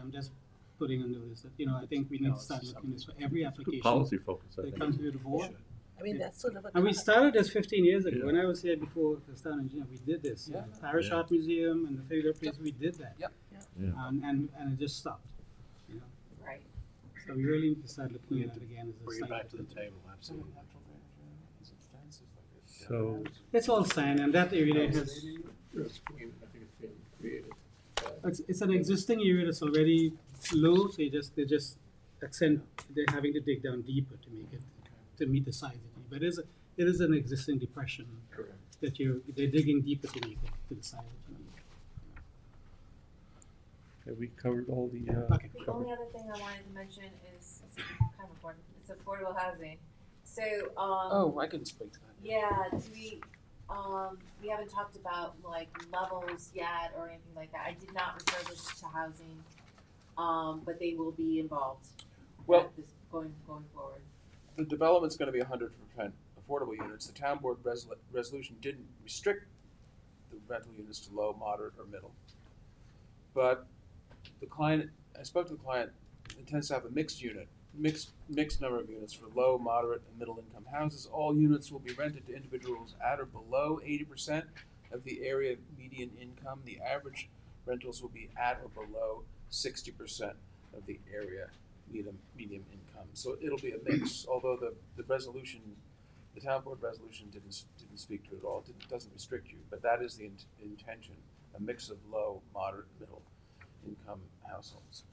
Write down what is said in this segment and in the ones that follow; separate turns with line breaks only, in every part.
I'm just putting a notice that, you know, I think we need to start looking this for every
Good
application
policy focus, I
that
think.
comes to the board.
I mean, that's sort of a.
And we
con-
started this fifteen years ago,
Yeah.
when I was here before the town engineer, we did this.
Yeah.
Parish
Yeah.
Art Museum and the Failure Place, we did that.
Yep.
Yeah.
Yeah.
And, and, and it just stopped, you know,
Right.
so we really need to start looking
We
at
need
it again as a
Bring it
site.
back to the table, absolutely.
So,
It's all sand, and that area has, it's, it's an existing area that's already low, so you just, they just accent, they're having to dig down deeper to make it, to meet the size of it. But it is, it is an existing depression that you're, they're digging deeper to make it to the size of it.
have we covered all the, uh,
Okay.
The only other thing I wanted to mention is, it's kind of boring, it's affordable housing. So, um,
Oh, I couldn't speak to that.
yeah, do we, um, we haven't talked about like levels yet or anything like that. I did not refer this to housing, um, but they will be involved.
Well-
at this- Going, going forward.
The development's gonna be hundred percent affordable units. The town board resol- resolution didn't restrict the rental units to low, moderate, or middle. But the client, I spoke to the client, intends to have a mixed unit, mixed, mixed number of units for low, moderate, and middle income houses. All units will be rented to individuals at or below eighty percent of the area median income. The average rentals will be at or below sixty percent of the area medium, medium income. So it'll be a mix, although the, the resolution, the town board resolution didn't, s- didn't speak to it at all, didn't, doesn't restrict you, but that is the int- intention, a mix of low, moderate, middle income households.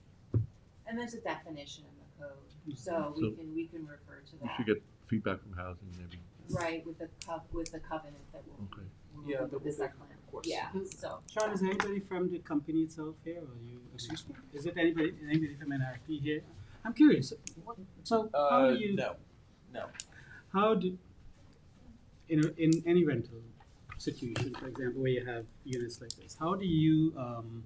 And there's a definition in the code, so we
Mm-hmm. So-
can, we can refer to
we
that.
should get feedback from housing, maybe,
Right, with the cov- with the covenant that will,
okay.
Yeah,
will,
that
with the
will
site
be-
plan.
of course.
Yeah,
Mhm.
so.
Sean, is there anybody from the company itself here, or you?
Excuse me?
Is it anybody, anybody from NRP here? I'm curious, so
Uh,
how do you,
no, no.
how do, in, a- in any rental situation, for example, where you have units like this, how do you, um,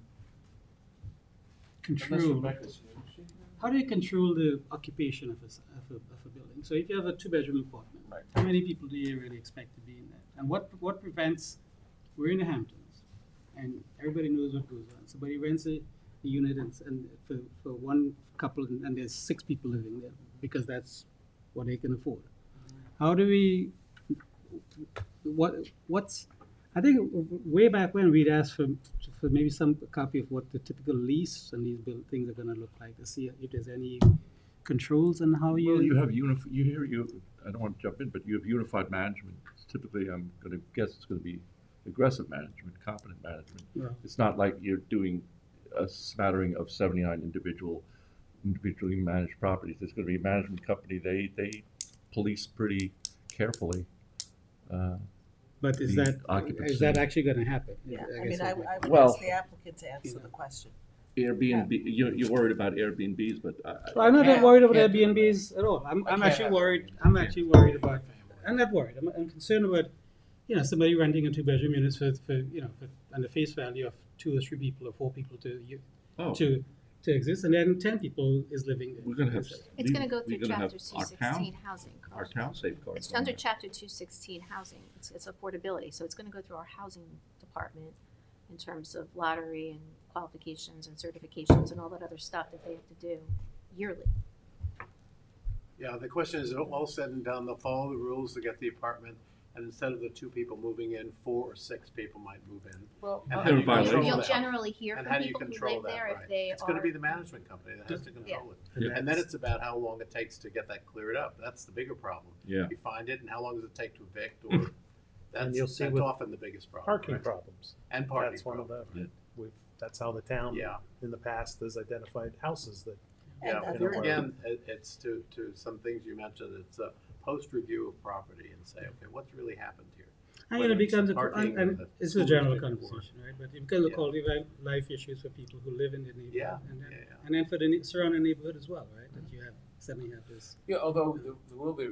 Unless
control,
Rebecca's here. Is she here?
how do you control the occupation of a, s- of a, of a building? So if you have a two-bedroom apartment,
Right.
how many people do you really expect to be in that? And what, what prevents, we're in the Hamptons, and everybody knows what goes on. Somebody rents a, a unit and, s- and for, for one couple, and and there's six people living there, because that's what they can afford. How do we, what, what's, I think w- w- way back when, we'd asked for, for maybe some copy of what the typical lease and these buil- things are gonna look like, to see if there's any controls on how
Well, you have unif, you hear, you, I don't want to jump in, but you have unified management. Typically, I'm gonna guess it's gonna be aggressive management, competent management.
Yeah.
It's not like you're doing a smattering of seventy-nine individual, individually managed properties. It's gonna be a management company, they, they police pretty carefully. Uh,
But is
the
that, is
occupancy.
that actually gonna happen?
Yeah, I
guess
mean, I,
would-
I would
Well-
ask the applicant to answer the question.
Airbnb, you, you're worried about Airbnbs, but I,
Well, I'm not that
Yeah.
worried about
Can't do that.
Airbnbs at all. I'm,
I
I'm
can't
actually
have
worried,
Airbnb.
I'm actually worried about, I'm not worried, I'm, I'm concerned about, you know, somebody renting a two-bedroom unit for, for, you know, for, and the face value of two or three people or four people to, you-
oh,
to, to exist, and then ten people is living there.
we're gonna have.
It's gonna go
we're
through
gonna have
chapter two
Our town,
sixteen housing.
our town safeguards.
It's
on
under
that.
chapter two sixteen housing, it's, it's affordability, so it's gonna go through our housing department in terms of lottery and qualifications and certifications and all that other stuff that they have to do yearly.
Yeah, the question is, all said and done, they'll follow the rules to get the apartment, and instead of the two people moving in, four or six people might move in.
Well,
They're
And how do you
in violation.
control
Well,
You'll
that?
generally hear
And
from
how do you
people who
control
live
that,
there if
right?
they are.
It's gonna be the management company that has to control it.
Yeah.
And then it's about how long it takes to get that cleared up, that's the bigger problem.
Yeah.
You find it, and how long does it take to evict, or,
And you'll
that's,
see
that's
with
often the biggest problem.
Parking
right?
problems,
And parking
that's one of
problem,
them.
Yeah.
We've, that's how the town,
yeah.
in the past, has identified houses that
And
Yeah,
that's
here
what-
again, it, it's to, to some things you mentioned, it's a post-review of property and say, okay, what's really happened here?
And
whether
it
it's the
becomes, a-
parking
and- and
or the
it's a
food
general
or-
conversation, right, but it becomes a
Yeah.
quality of li- life issues for people who live in the neighborhood. and then-
Yeah, yeah.
And then for the ne- surrounding neighborhood as well, right, that you have, suddenly have this.
Yeah, although there, there will be,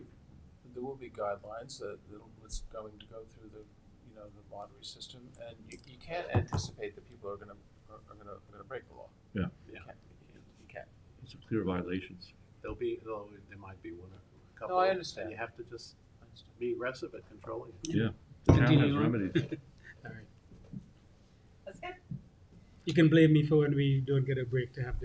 there will be guidelines that, that it's going to go through the, you know, the lottery system, and you, you can't anticipate that people are gonna, are are gonna, are gonna break the law.
Yeah.
You
Yeah.
can't, you you can't.
It's a clear violations.
There'll be, there'll, there might be one or a couple.
I understand.
And you have to just be aggressive at controlling it.
Yeah. The town has
Continue on.
remedies.
All right.
That's good.
You can blame me for when we don't get a break to have this